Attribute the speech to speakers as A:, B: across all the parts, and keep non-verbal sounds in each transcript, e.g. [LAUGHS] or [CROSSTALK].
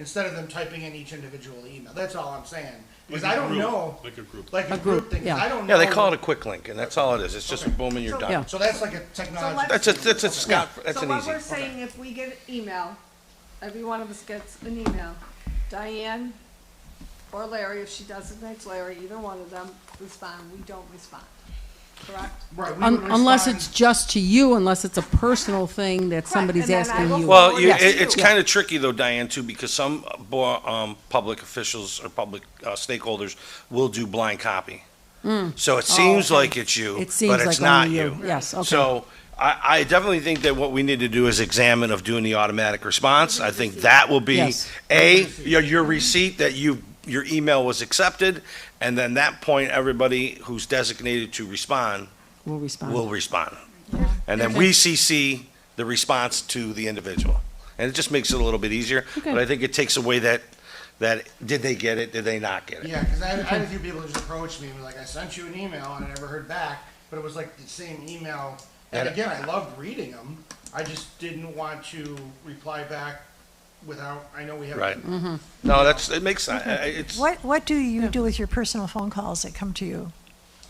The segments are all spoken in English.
A: instead of them typing in each individual email. That's all I'm saying. Because
B: Like
A: I
B: a
A: don't
B: group,
A: know,
B: Like a group.
A: like a
C: group,
A: group thing, 'cause
C: yeah.
A: I don't know.
D: Yeah, they call it a quick link, and that's all it is. It's just boom and you're
A: So-
D: done.
C: Yeah.
A: So that's like a
E: So
A: technology.
E: let's-
D: That's a, that's a Scott, that's
E: So
D: an
E: what
D: easy.
E: we're saying, if we get an email, every one of us gets an email, Diane or Larry, if she designates Larry, either one of them respond, we don't respond, correct?
A: Right, we
C: Un-
A: would
C: Unless
A: respond-
C: it's just to you, unless it's a personal thing that somebody's
E: and then I
C: asking
E: will
C: you.
E: forward
D: Well, you,
C: Yes.
D: it, it's
C: Yeah.
D: kind of tricky though, Diane, too, because some uh, bo- um, public officials or public uh, stakeholders will do blind copy. So it seems
C: Hmm. Oh, okay.
D: like it's you,
C: It seems
D: but it's
C: like
D: not
C: only
D: you.
C: you. Yes, okay.
D: So I, I definitely think that what we need to do is examine of doing the automatic response. I think that will be,
C: Yes.
D: A, your, your receipt that you, your email was accepted, and then that point, everybody who's designated to respond
C: We'll respond.
D: will respond. And then we CC the response to the individual. And it just makes it a little bit easier,
C: Okay.
D: but I think it takes away that, that, did they get it, did they not get it?
A: Yeah, because I, I had a few people just approached me and were like, I sent you an email and I never heard back, but it was like the same email. And
D: And-
A: again, I loved reading them. I just didn't want to reply back without, I know we have.
D: Right.
C: Mm-hmm.
D: No, that's, it makes, I- I- it's,
F: What, what do you do with your personal phone calls that come to you?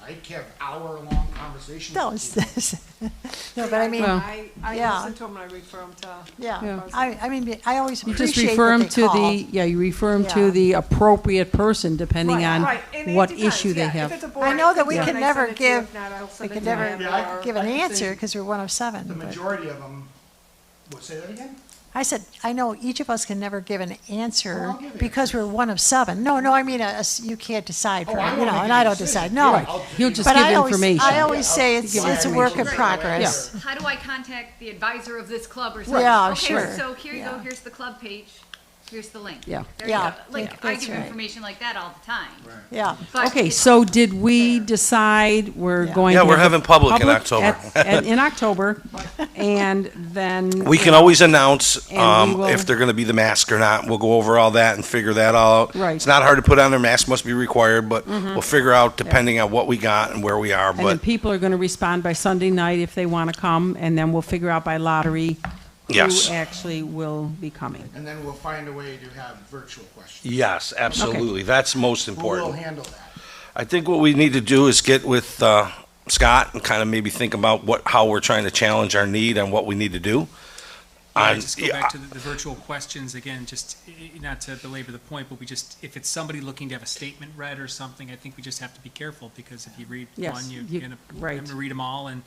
F: [LAUGHS]
A: I kept hour-long conversations.
F: No,
A: with
F: it's
A: people.
F: this. No, but I mean,
C: Well-
E: I, I
F: Yeah.
E: listen to them and I refer them to.
F: yeah,
C: Yeah.
F: I, I mean, I always
C: You just
F: appreciate
C: refer them
F: that they
C: to
F: call.
C: the, yeah, you refer them to
F: Yeah.
C: the appropriate person, depending
E: Right,
C: on
E: right, and it
C: what
E: depends,
C: issue they
E: yeah, if
C: have.
E: it's a board,
F: I know
E: it
F: that
E: could
F: we
E: be
F: can
E: I
F: never
E: send it to you,
F: give,
E: if not, I'll
F: we
E: send it
F: can
E: to
F: never
E: him,
A: Yeah, I-
E: or-
F: give an
A: I can
F: answer
A: think-
F: because we're one of seven.
A: The
F: but-
A: majority of them, what, say that again?
F: I said, I know each of us can never give an answer
A: I'll give
F: because we're one of seven. No, no, I mean, uh, us- you can't decide
A: Oh,
F: for,
A: I
F: you
A: won't
F: know,
A: make
F: and
A: a
F: I don't
A: decision.
F: decide, no.
A: Right. I'll
C: He'll
A: give
C: just
F: But
C: give
F: I always,
C: information.
F: I always say it's,
A: give
F: it's a work in
A: information.
F: progress.
G: How do I contact the advisor of this club or something?
F: Yeah,
G: Okay,
F: sure.
G: So here you go,
F: Yeah.
G: here's the club page, here's the link.
C: Yeah.
G: There you
F: Yeah,
G: go. Like, I
F: that's
G: give
F: right.
G: information like that all the time.
F: Yeah.
G: But
C: Okay,
G: it's-
C: so did we decide we're
F: Yeah.
C: going to?
D: Yeah, we're
C: have a
D: having public in October.
C: at- at- In October, [LAUGHS] and then.
D: [LAUGHS] we can always announce,
C: And we
D: um,
C: will-
D: if they're gonna be the mask or not. We'll go over all that and figure that all out.
C: Right. Mm-hmm.
D: It's not hard to put on, their mask must be required, but we'll figure out depending on what we got and where we are,
C: And then
D: but,
C: people are going to respond by Sunday night if they want to come, and then we'll figure out by lottery.
D: Yes.
C: Who actually will be coming.
A: And then we'll find a way to have virtual questions.
D: yes, absolutely. That's most
A: Who will
D: important.
A: handle that?
D: I think what we need to do is get with uh, Scott and kind of maybe think about what, how we're trying to challenge our need and what we need to do.
H: I
D: On-
H: just go back to the, the virtual questions again, just, eh, eh, not to belabor the point, but we just, if it's somebody looking to have a statement read or something, I think we just have to be careful, because if you read
C: Yes,
H: one, you,
C: you-
H: you end up
C: right.
H: having to read them all, and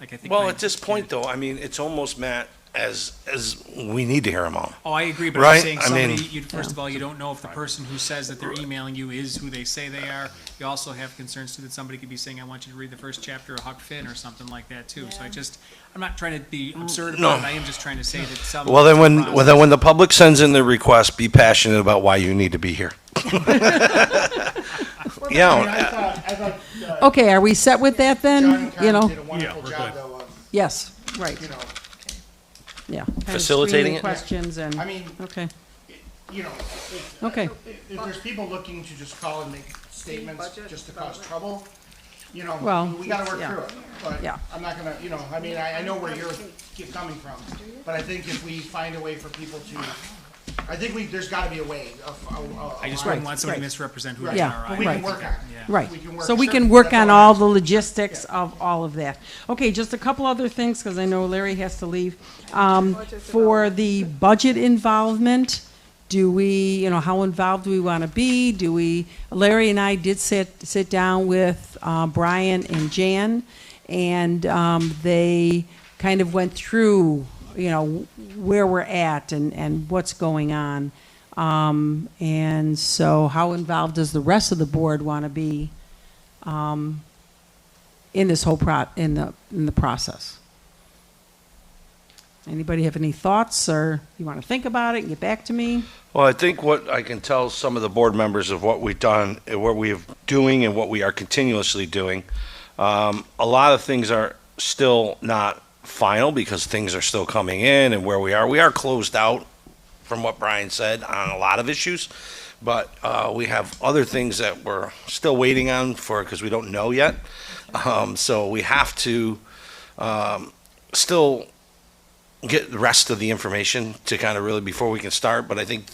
H: like I think.
D: Well,
H: my-
D: at this point, though, I mean, it's almost, Matt, as, as we need to hear them all.
H: Oh, I agree, but I'm
D: Right,
H: saying
D: I
H: somebody,
D: mean-
H: you, first of all, you don't know if the person who says that they're emailing you is who they say they are. You also have concerns too that somebody could be saying, I want you to read the first chapter of Huck Finn or something like that too. So I just, I'm not trying to be absurd
D: Mm, no.
H: about it, I am just trying to say that some.
D: Well, then when, well, then when the public sends in their request, be passionate about why you need to be [LAUGHS] here.
A: I mean,
D: Oh, Yeah,
A: I thought, I thought, uh,
C: Okay, are we set with
A: John
C: that then?
A: and
C: You
A: Karen
C: know,
A: did a wonderful
B: we're
A: job
B: good.
A: though of,
C: yes, right,
A: you know,
C: yeah. Kind of
D: Facilitating
C: screening
D: it?
C: Questions and,
A: I mean,
C: okay,
A: you know, if,
C: okay.
A: if there's people looking to just call and make statements
E: budget
A: just to cause trouble, you know,
C: Well,
A: we gotta work
C: yeah.
A: through it.
C: Yeah.
A: But I'm not gonna, you know, I mean, I, I know where you're, you're coming from, but I think if we find a way for people to, I think we, there's gotta be a way of, a- a- a
H: I just
A: line.
H: wouldn't want somebody
C: right.
H: to misrepresent who
A: Right.
H: they are.
A: But
H: I
A: we can
H: think.
A: work on it.
H: Yeah.
C: Right,
A: We can work-
C: so we
A: sure,
C: can work
A: that's
C: on
A: all I
C: all
A: have.
C: the logistics of all of that. Okay, just a couple other things, because I know Larry has to leave. Um, For the budget involvement, do we, you know, how involved do we want to be? Do we, Larry and I did sit, sit down with uh, Brian and Jan, and um, they kind of went through, you know, where we're at and, and what's going on. Um, And so how involved does the rest of the board want to be? um, in this whole pro, in the, in the process. Anybody have any thoughts or you want to think about it and get back to me?
D: well, I think what I can tell some of the board members of what we've done, and what we are doing and what we are continuously doing, um, a lot of things are still not final because things are still coming in and where we are. We are closed out from what Brian said on a lot of issues, but uh, we have other things that we're still waiting on for because we don't know yet. Um, so we have to um, still get the rest of the information to kind of really before we can start. But I think